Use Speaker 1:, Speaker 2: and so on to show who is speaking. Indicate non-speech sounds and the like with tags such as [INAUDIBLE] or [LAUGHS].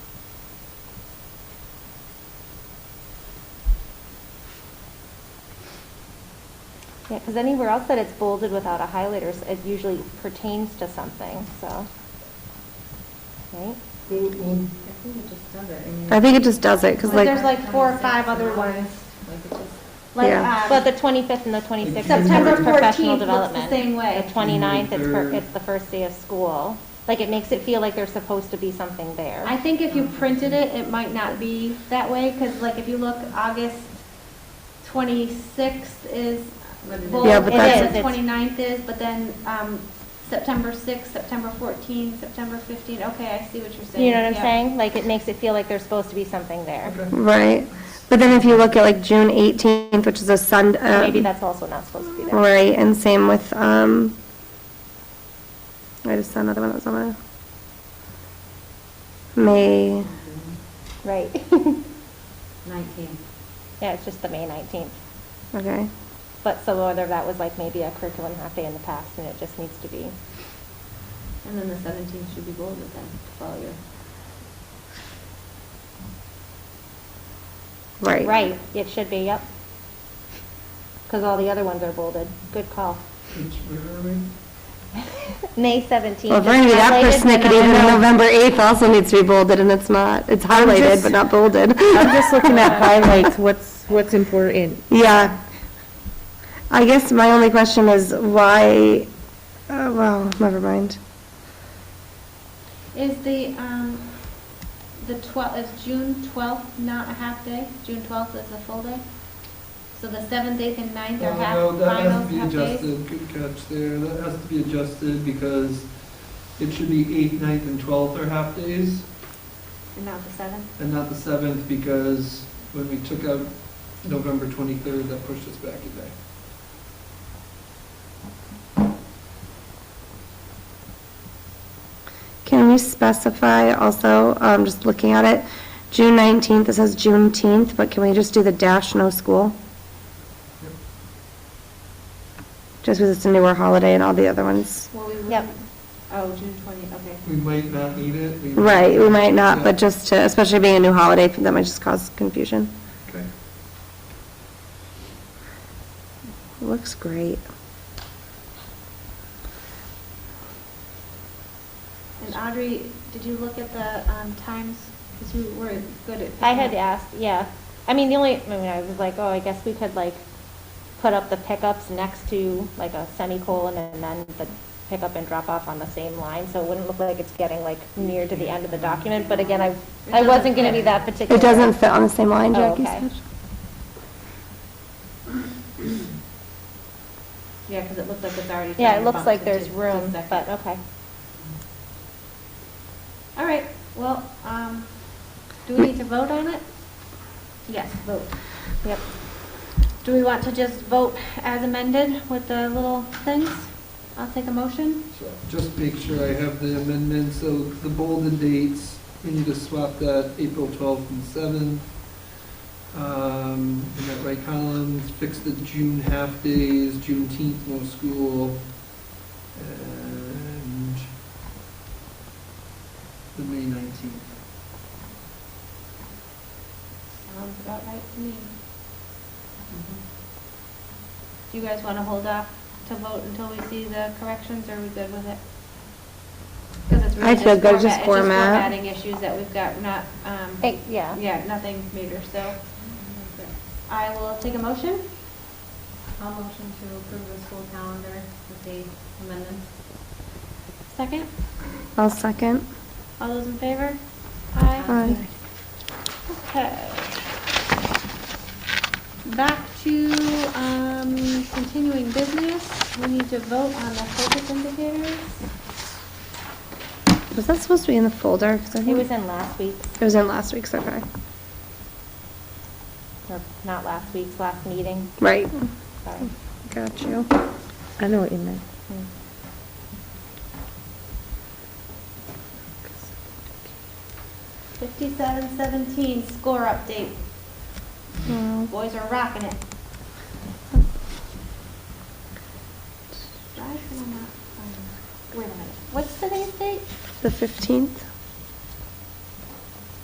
Speaker 1: Yeah, because anywhere else that it's bolded without a highlighter, s- it usually pertains to something, so. Right?
Speaker 2: I think it just does it. mean,
Speaker 3: I think it just does it, because
Speaker 1: But
Speaker 3: like,
Speaker 1: there's like four or five other ones.
Speaker 2: Like it just.
Speaker 4: Like,
Speaker 3: Yeah.
Speaker 4: um,
Speaker 1: But the 25th and the 26th
Speaker 4: September
Speaker 1: is professional
Speaker 4: 14th looks the
Speaker 1: development.
Speaker 4: same way.
Speaker 1: The 29th, it's, for-
Speaker 5: Mhm.
Speaker 1: it's the first day of school. Like, it makes it feel like there's supposed to be something there.
Speaker 4: I think if you printed it, it might not be that way, because like if you look, August 26th is
Speaker 2: But it is.
Speaker 4: bold,
Speaker 3: Yeah,
Speaker 4: and
Speaker 3: but that's-
Speaker 4: then
Speaker 1: It
Speaker 4: the
Speaker 1: is, it's-
Speaker 4: 29th is, but then um, September 6th, September 14th, September 15th, okay, I see what you're saying.
Speaker 1: You know what I'm
Speaker 4: yeah.
Speaker 1: saying? Like, it makes it feel like there's supposed to be something there.
Speaker 3: right? But then if you look at like June 18th, which is a Sunday.
Speaker 1: Maybe that's also not supposed to be there.
Speaker 3: Right, and same with, um, I just saw another one that was on there. May,
Speaker 1: Right. [LAUGHS]
Speaker 2: Nineteen.
Speaker 1: Yeah, it's just the May 19th.
Speaker 3: okay.
Speaker 1: But so whether that was like maybe a curriculum half day in the past and it just needs to be
Speaker 2: And then the seventeen should be bolded then, to follow your.
Speaker 3: Right.
Speaker 1: Right, it should be, yep. Because all the other ones are bolded. Good call. May 17th.
Speaker 3: Well, if we're gonna be that persnickety, then the November 8th also needs to be bolded, and it's not, it's highlighted,
Speaker 6: just-
Speaker 3: but not bolded.
Speaker 6: I'm just looking
Speaker 3: [LAUGHS]
Speaker 6: at highlights, what's, what's important.
Speaker 3: Yeah. I guess my only question is why, uh, well, never mind.
Speaker 4: Is the, um, the 12th, is June 12th not a half day? June 12th is a full day? So the 7th, 8th, and 9th are half,
Speaker 5: Uh, No, that has
Speaker 4: finals,
Speaker 5: to be
Speaker 4: half days?
Speaker 5: adjusted, good catch there, that has to be adjusted because it should be eighth, ninth, and twelfth are half days,
Speaker 4: And not the 7th?
Speaker 5: and not the seventh, because when we took out November twenty-third, that pushed us back a day.
Speaker 3: Can we specify also, um, just looking at it, June 19th, it says Juneteenth, but can we just do the dash no school?
Speaker 5: Yep.
Speaker 3: Just because it's a newer holiday and all the other ones.
Speaker 4: Well, we
Speaker 1: Yep.
Speaker 4: would, oh, June 20th, okay.
Speaker 2: Hmm.
Speaker 5: We might not need it. we-
Speaker 3: Right, we might not,
Speaker 5: Yeah.
Speaker 3: but just to, especially being a new holiday, that might just cause confusion.
Speaker 5: Okay.
Speaker 3: It looks great.
Speaker 4: And Audrey, did you look at the um, times? Because we were good at.
Speaker 1: I had asked, yeah. I mean, the only, I mean, I was like, oh, I guess we could like put up the pickups next to like a semicolon and then the pickup and drop off on the same line. So it wouldn't look like it's getting like near to the end of the document. But again, I, I
Speaker 4: doesn't
Speaker 1: wasn't going to be
Speaker 4: fit.
Speaker 1: that particular.
Speaker 3: It doesn't fit on the same line,
Speaker 1: Oh,
Speaker 3: Jackie
Speaker 1: okay.
Speaker 3: said.
Speaker 2: Yeah, because it looks like it's already.
Speaker 1: Yeah, it
Speaker 2: kinda
Speaker 1: looks
Speaker 2: bumped
Speaker 1: like
Speaker 2: into
Speaker 1: there's
Speaker 2: the
Speaker 1: room,
Speaker 2: second.
Speaker 1: but okay.
Speaker 4: All right, well, um, do we need to vote on it? Yes, vote.
Speaker 1: Yep.
Speaker 4: Do we want to just vote as amended with the little things? I'll take a motion.
Speaker 5: So Just make sure I have the amendment, so the bolded dates, we need to swap that April 12th and 7th. Um, In that right column, fix the June half days, Juneteenth, no school, and the May 19th.
Speaker 4: Sounds about right to me.
Speaker 2: Mm-hmm.
Speaker 4: Do you guys want to hold off to vote until we see the corrections, or are we good with it? Because it's really
Speaker 3: I
Speaker 4: just
Speaker 3: feel
Speaker 4: format,
Speaker 3: good,
Speaker 4: it's just
Speaker 3: just format.
Speaker 4: formatting issues that we've got, not, um,
Speaker 1: Eh, Yeah.
Speaker 4: yeah, nothing major, so. I will take a motion.
Speaker 2: I'll motion to approve the school calendar with the amendments.
Speaker 4: Second,
Speaker 3: I'll second.
Speaker 4: all those in favor? Aye.
Speaker 3: Aye.
Speaker 4: Okay. Back to, um, continuing business, we need to vote on the focus indicators.
Speaker 3: Was that supposed to be in the folder? 'Cause I
Speaker 1: It
Speaker 3: think-
Speaker 1: was in last week's,
Speaker 3: It was in last week's, okay.
Speaker 1: or not last week's, last meeting.
Speaker 3: Right.
Speaker 1: Sorry.
Speaker 3: Got you.
Speaker 6: I know what you meant.
Speaker 1: Mm.
Speaker 4: Fifty-seven seventeen, score update,
Speaker 3: Well,
Speaker 4: boys are rocking it. Why can I not find- Wait a minute, what's today's date?
Speaker 3: The 15th?